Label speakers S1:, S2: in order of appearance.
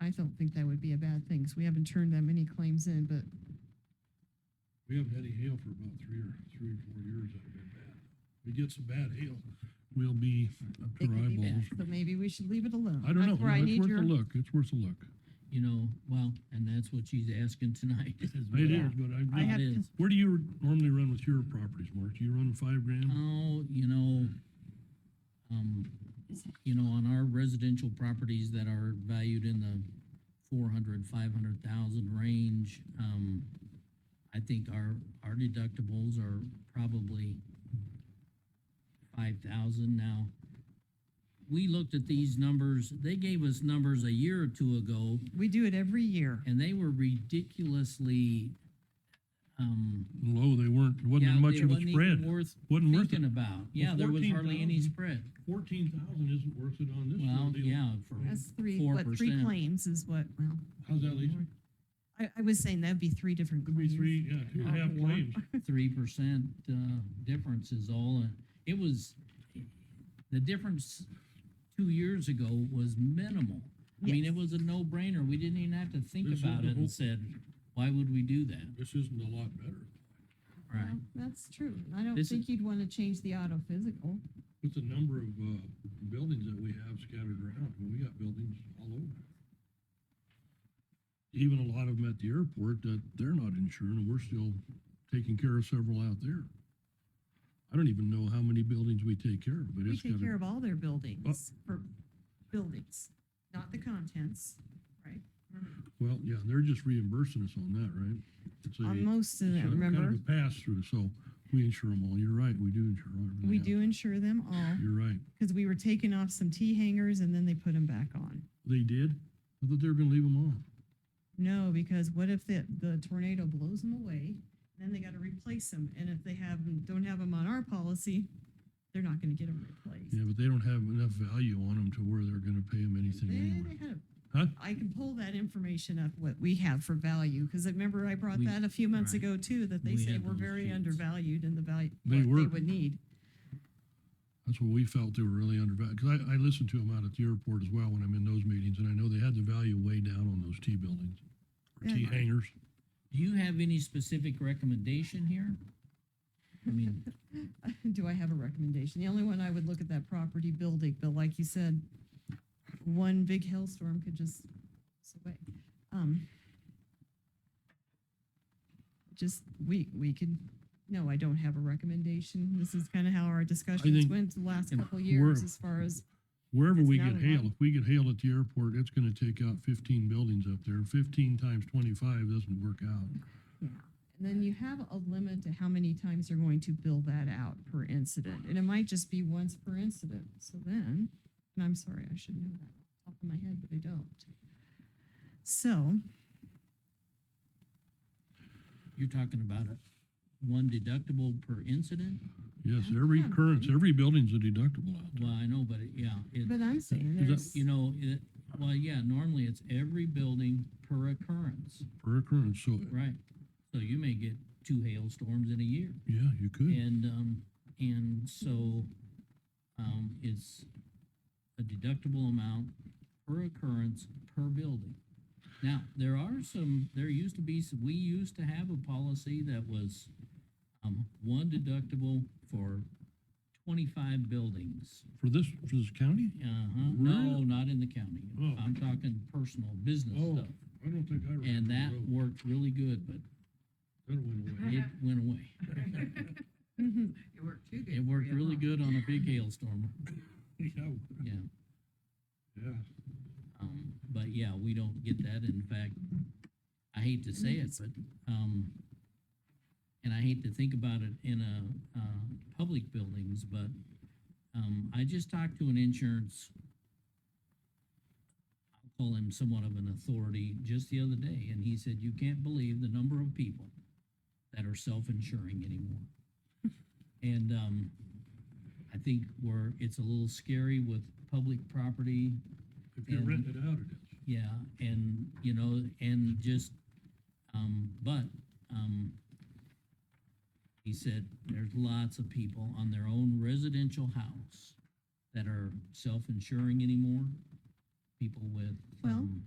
S1: I don't think that would be a bad thing, 'cause we haven't turned that many claims in, but
S2: We haven't had any hail for about three or, three or four years that have been bad. We get some bad hail, we'll be up
S1: it
S2: to our
S1: could be bad.
S2: eyeballs.
S1: So maybe we should leave it alone.
S2: I don't know,
S1: That's where I
S2: it's
S1: need
S2: worth
S1: your,
S2: a look, it's worth a look.
S3: you know, well, and that's what she's asking tonight. is
S2: It
S3: whether-
S2: is, but I'm
S1: I
S3: It
S1: have-
S2: just,
S3: is.
S2: where do you normally run with your properties, Mark? Do you run five grand?
S1: Um,
S3: Oh, you know, um, you know, on our residential properties that are valued in the four hundred, five hundred thousand range, um, I think our, our deductibles are probably five thousand now. We looked at these numbers, they gave us numbers a year or two ago,
S1: we do it every year.
S3: and they were ridiculously, um,
S2: Low, oh, they weren't,
S3: yeah,
S2: wasn't much
S3: they
S2: of a
S3: wasn't even
S2: spread,
S3: Worth
S2: wasn't worth
S3: thinking
S2: it.
S3: about. Yeah, there was hardly any
S2: 14,000.
S3: spread.
S2: Fourteen thousand isn't worth it on this little
S3: Well,
S2: deal.
S3: yeah, for,
S1: That's three, what, three
S3: 4%.
S1: claims is what, well,
S2: How's that, Lisa?
S1: I, I was saying that'd be three different
S2: Could be
S1: claims.
S2: three, yeah, two and a half
S1: Yeah.
S2: claims.
S3: three percent, uh, difference is all, and it was, the difference two years ago was minimal. I mean, it
S1: Yes.
S3: was a no-brainer, we didn't even have to think
S2: This is
S3: about
S2: the
S3: it
S2: whole-
S3: and said, why would we do that,
S2: This isn't a lot better.
S3: right?
S1: Well, That's true. and I don't
S3: This is-
S1: think you'd want to change the auto physical.
S2: With the number of, uh, buildings that we have scattered around, I mean, we got buildings all over. Even a lot of them at the airport that they're not insured, and we're still taking care of several out there. I don't even know how many buildings we take care of, but
S1: We
S2: it's got
S1: take care of
S2: to,
S1: all their buildings, for buildings, not the contents, right?
S2: well, yeah, they're just reimbursing us on that, right? It's a-
S1: On most of
S2: it's a
S1: them,
S2: kind of
S1: remember?
S2: a Pass-through, so we insure them all. You're right, we do insure everything.
S1: We
S2: out.
S1: do insure them all,
S2: You're right.
S1: because we were taking off some T hangers and then they put them back on.
S2: They did? I thought they were gonna leave them on.
S1: No, because what if the, the tornado blows them away, then they gotta replace them, and if they have, 'em- don't have them on our policy, they're not gonna get them replaced.
S2: Yeah, but they don't have enough value on them to where they're gonna pay them anything
S1: They- they
S2: anyway.
S1: had a-
S2: Huh?
S1: I can pull that information up, what we have for value, because I remember I brought
S3: We-
S1: that a few months
S3: right.
S1: ago too, that they
S3: We
S1: say
S3: had
S1: we're
S3: those
S1: very
S3: sheets.
S1: undervalued in the value,
S2: They
S1: what they
S2: were.
S1: would need.
S2: That's what we felt they were really undervalued, because I, I listened to them out at the airport as well when I'm in those meetings, and I know they had the value way down on those T buildings. Or T
S1: Yeah.
S2: hangers.
S3: Do you have any specific recommendation here? I mean,
S1: Do I have a recommendation? The only one I would look at that property building, but like you said, one big hailstorm could just, it's away. Um, Just, we, we could, no, I don't have a recommendation. This is kind of how our discussions
S2: think-
S1: went the last
S2: and
S1: couple
S2: we're-
S1: years as far as,
S2: Wherever
S1: It's
S2: we
S1: not
S2: get
S1: a lot.
S2: hail, if we get hail at the airport, it's gonna take out fifteen buildings up there. Fifteen times twenty-five doesn't work out.
S1: yeah. And then you have a limit to how many times you're going to bill that out per incident. And it might just be once per incident. So then, and I'm sorry, I should know that off the top of my head, but I don't. So.
S3: you're talking about a one deductible per incident?
S2: Yes,
S1: That's
S2: every
S1: not
S2: occurrence,
S1: bad.
S2: every building's a deductible out there.
S3: Well, I know, but it- yeah, it,
S1: But I'm saying
S2: that-
S1: there's,
S3: you know, it, well, yeah, normally it's every building per occurrence,
S2: per occurrence, so,
S3: right? So you may get two hailstorms in a year.
S2: yeah, you could.
S3: And, um, and so, um, it's a deductible amount per occurrence per building. Now, there are some, there used to be, some- we used to have a policy that was, um, one deductible for twenty-five buildings.
S2: For this, for this county?
S3: Uh-huh, no,
S2: Really?
S3: not in the county.
S2: Oh.
S3: I'm talking personal business
S2: Oh,
S3: stuff.
S2: I don't think I remember.
S3: And that
S2: those.
S3: worked really good, but
S2: That went away.
S3: it went away.
S1: Mhm.
S4: It worked too good.
S3: It
S4: for
S3: worked
S4: you,
S3: really
S4: huh?
S3: good on a big hailstorm,
S2: Yeah,
S3: yeah.
S2: yeah.
S3: Um, but yeah, we don't get that. In fact, I hate to say it, but, um, and I hate to think about it in a, uh, public buildings, but, um, I just talked to an insurance, I'll call him somewhat of an authority, just the other day, and he said, you can't believe the number of people that are self-insuring anymore. And, um, I think we're, it's a little scary with public property,
S2: If you
S3: And-
S2: rent it out, it is.
S3: yeah, and, you know, and just, um, but, um, he said there's lots of people on their own residential house that are self-insuring anymore. People with,
S1: Well-
S3: um,